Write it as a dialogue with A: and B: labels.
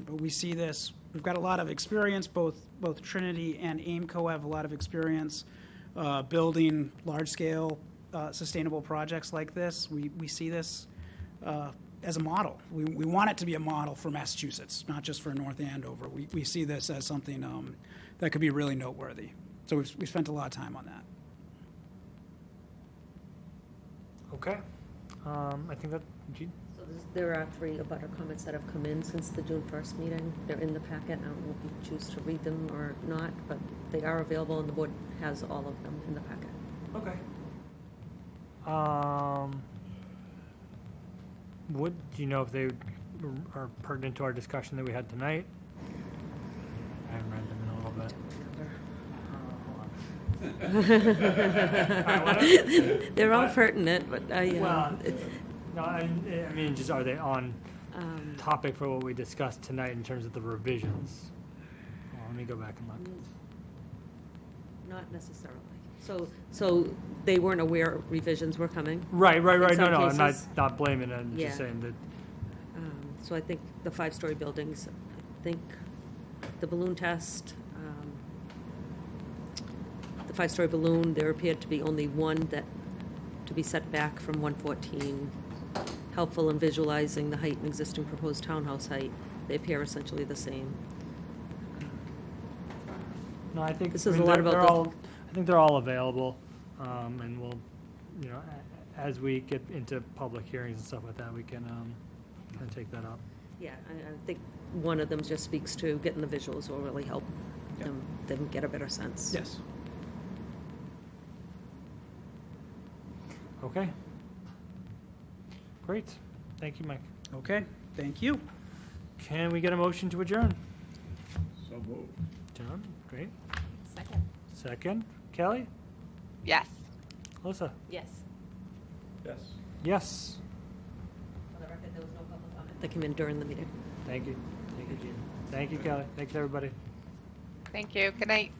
A: But we see this, we've got a lot of experience, both, both Trinity and Aimco have a lot of experience uh, building large-scale uh, sustainable projects like this. We, we see this uh, as a model. We, we want it to be a model for Massachusetts, not just for North Andover. We, we see this as something um, that could be really noteworthy. So we've, we spent a lot of time on that.
B: Okay. Um, I think that, Gene?
C: So this- There are three abutter comments that have come in since the June 1st meeting. They're in the packet. I don't know if you choose to read them or not, but they are available, and the board has all of them in the packet.
B: Okay. Um, would, do you know if they are pertinent to our discussion that we had tonight? I haven't read them in a little bit. Alright, why don't-
C: They're all
B: What?
C: pertinent, but I, uh,
B: Well, no, I, I mean, just are they on
C: um,
B: topic for what we discussed tonight in terms of the revisions? Well, let me go back and look.
C: Mm. not necessarily. So, so they weren't aware revisions were coming.
B: Right, right, right. No,
C: some
B: no, I'm not,
C: cases-
B: not blaming it. I'm
C: Yeah.
B: just saying that
C: Um, So I think the five-story buildings, I think the balloon test, um, the five-story balloon, there appeared to be only one that, to be set back from 114, helpful in visualizing the height and existing proposed townhouse height. They appear essentially the same.
B: No, I think.
C: This
B: I
C: is
B: mean,
C: a lot
B: they're-
C: about
B: they're
C: the-
B: all- I think they're all available, um, and we'll, you know, a- as we get into public hearings and stuff like that, we can, um, kind of take that up.
C: Yeah, I, I think one of them just speaks to getting the visuals will really help
A: Yeah.
C: them, them get a better sense.
A: Yes.
B: Okay. Great. Thank you, Mike.
A: Okay, thank you.
B: Can we get a motion to adjourn?
D: So moved.
B: John, great.
C: Second.
B: Second, Kelly,
E: Yes.
B: Alyssa,
C: Yes.
D: Yes.
B: yes.
C: For the record, there was no public comment. That came in during the meeting.
B: Thank you. Thank you, Gene. Thank you, Kelly. Thanks, everybody.
E: Thank you. Good night.